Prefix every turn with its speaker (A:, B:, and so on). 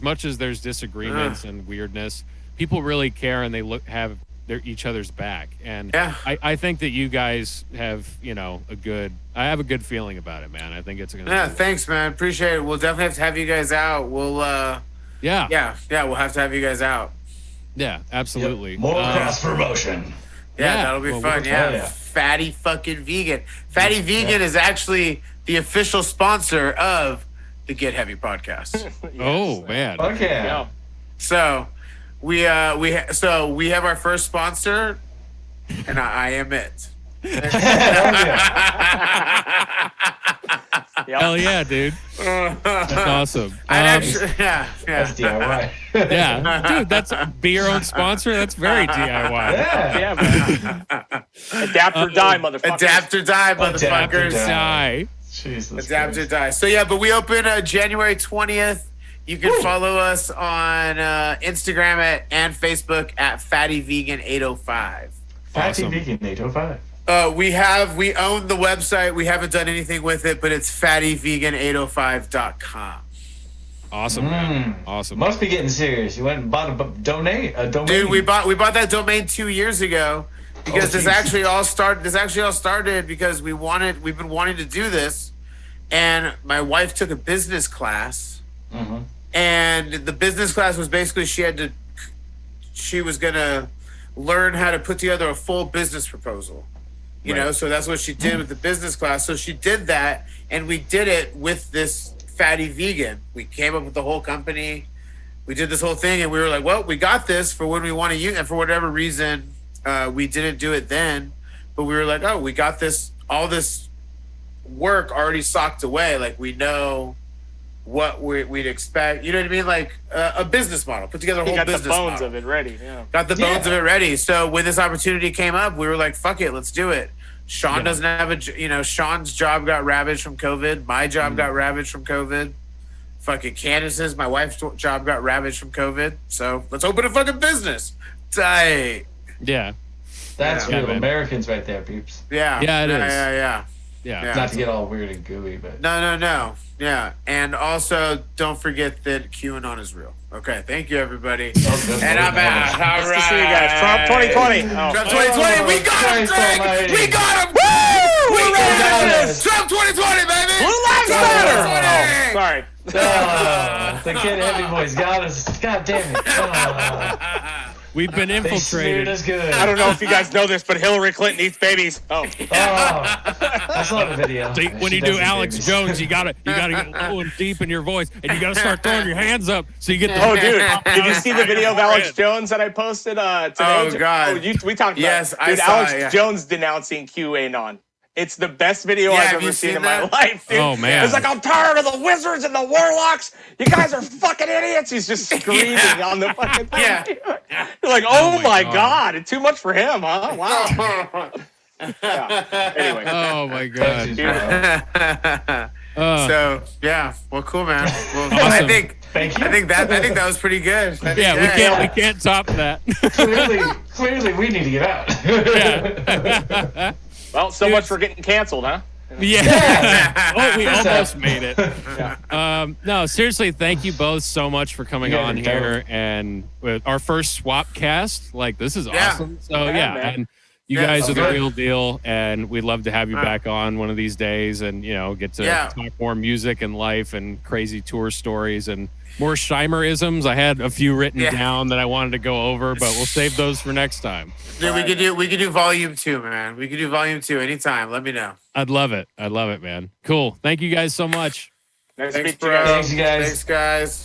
A: much as there's disagreements and weirdness, people really care and they look have their each other's back. And
B: Yeah.
A: I, I think that you guys have, you know, a good I have a good feeling about it, man. I think it's gonna
B: Yeah,
A: be-
B: thanks, man. Appreciate it. We'll definitely have to have you guys out. We'll, uh,
A: yeah, yeah,
B: yeah, yeah, we'll have to have you guys out.
A: absolutely.
C: More
A: Um,
C: cross promotion.
B: Yeah,
A: Yeah,
B: that'll be
A: well,
B: fun.
A: we'll-
B: Yeah.
C: oh, yeah.
B: Fatty fucking vegan. Fatty vegan is actually the official sponsor of the Get Heavy
C: Hmm.
B: podcast.
A: oh man.
C: Fuck yeah.
D: Yeah.
B: so we uh we ha- so we have our first sponsor, and I, I am it.
C: Hell yeah.
A: Hell yeah, dude. That's awesome.
B: I'd
A: Um,
B: actually, yeah,
C: That's
B: yeah.
C: DIY.
A: yeah, dude, that's be your own sponsor. That's very DIY.
C: yeah.
D: Yeah, man. Adapt or die, motherfucker.
B: Adapt or die,
C: Adapt or
B: motherfuckers.
C: die.
A: Die.
C: Jesus.
B: Adapt or
C: Christ.
B: die. So yeah, but we open uh, January twentieth. You can follow us on uh, Instagram at and Facebook at Fatty Vegan eight hundred five.
C: Fatty
A: Awesome.
C: Vegan 805.
B: Uh, we have we own the website. We haven't done anything with it, but it's fattyvegan805.com.
A: Awesome, man.
C: Mm.
A: Awesome.
C: Must be getting serious. You went and bought a bu- donate a domain.
B: Dude, we bought we bought that domain two years ago because
C: Oh,
B: this
C: geez.
B: actually all started. This actually all started because we wanted we've been wanting to do this, and my wife took a business class.
C: Mhm.
B: and the business class was basically she had to she was gonna learn how to put together a full business proposal you know
C: Right.
B: so that's what she did with the business class so she did that and we did it with this fatty vegan we came up with the whole company we did this whole thing and we were like well we got this for when we want to use and for whatever reason uh, we didn't do it then but we were like oh we got this all this work already socked away like we know what we, we'd expect you know what i mean like uh, a business model put together a
D: He
B: whole
D: got the
B: business
D: bones
B: model
D: of it ready. Yeah.
B: got the bones
C: Yeah.
B: of it ready. So when this opportunity came up, we were like, "Fuck it, let's do it." Sean
C: Yeah.
B: doesn't have a, j- you know, Sean's job got ravaged from COVID. My job got ravaged from COVID. Fucking Candace's, my wife's t- job got ravaged from COVID. So let's open a fucking business. Tight.
A: Yeah,
C: That's
B: Yeah.
C: real
A: Yeah, man.
C: Americans right there, peeps.
B: Yeah.
A: Yeah, it
B: yeah,
A: is.
B: Yeah, yeah.
A: yeah.
B: Yeah.
C: Not to get all weird and gooey, but
B: No, no, no. Yeah. And also, don't forget that QAnon is real. Okay. Thank you, everybody.
C: Oh, good
B: and
C: Lord,
B: I'm
C: man.
B: out. All
D: Nice to see you guys. Trump
B: right.
D: 2020. Oh.
B: Trump 2020, we got him,
C: Christ
B: Greg!
C: almighty.
B: We got him! Woo! We got him!
C: Yes.
B: Trump 2020, baby!
D: Blue Lives Matter! Oh, sorry.
C: Oh, the kid heavy boys got us. God damn it. Oh,
A: We've been
C: they
A: infiltrated.
C: smeared us good.
D: I don't know if you guys know this, but Hillary Clinton eats babies. Oh,
C: Oh, I saw the video.
A: See, when
C: She
A: you do
C: does eat
A: Alex
C: babies.
A: Jones, you gotta you gotta get low and deep in your voice, and you gotta start throwing your hands up so you get the
D: oh, dude! Did you see the video of Alex Jones that I posted uh, today?
B: Oh, God.
D: Oh, you, we talked about. it.
B: Yes, I
D: dude,
B: saw
D: Alex
B: it, yeah.
D: Jones denouncing QAnon. It's the best video
B: Yeah,
D: I've
B: have
D: ever
B: you
D: seen,
B: seen
D: in
B: that?
D: my life, dude.
A: Oh, man.
D: It's like I'm tired of the wizards and the warlocks. You guys are fucking idiots. He's just screaming
B: Yeah.
D: on the fucking thing.
B: Yeah.
D: You're like, oh,
A: my
D: my
A: God.
D: god. it's too much for him, huh? Wow. Yeah. Anyway.
A: Oh my god.
C: Thank you.
A: Uh,
B: so yeah, well, cool, man. Well, I
A: Awesome.
B: think
C: Thank you.
B: I think that I think that was pretty good. I think-
A: yeah, we can't we can't top that.
C: clearly, clearly, we need to get out.
A: yeah.
D: Well, so
A: Dude.
D: much for getting canceled, huh?
A: yeah. Oh, we
C: What's
A: almost
C: up?
A: made it. Um, no, seriously, thank you both so much for coming
C: You guys
A: on
C: are
A: here and with our first swap cast. Like this is
B: Yeah.
A: awesome. So
D: Yeah,
A: yeah,
D: man.
A: and you
B: Yeah,
A: guys
C: sounds
A: are the
C: good.
A: real deal, and we'd love to have you
B: All right.
A: back on one of these days, and you know get to
B: Yeah.
A: talk more music and life and crazy tour stories and more Scheimerisms. I had a few written
B: Yeah.
A: down that I wanted to go over, but we'll save those for next time.
B: Dude, we could do we could do volume two, man. We could do volume two anytime. Let me know.
A: I'd love it. I'd love it, man. Cool. Thank you guys so much.
D: Nice to
B: Thanks,
D: meet you
B: bro.
D: guys.
C: Thanks, you guys.
B: Thanks, guys.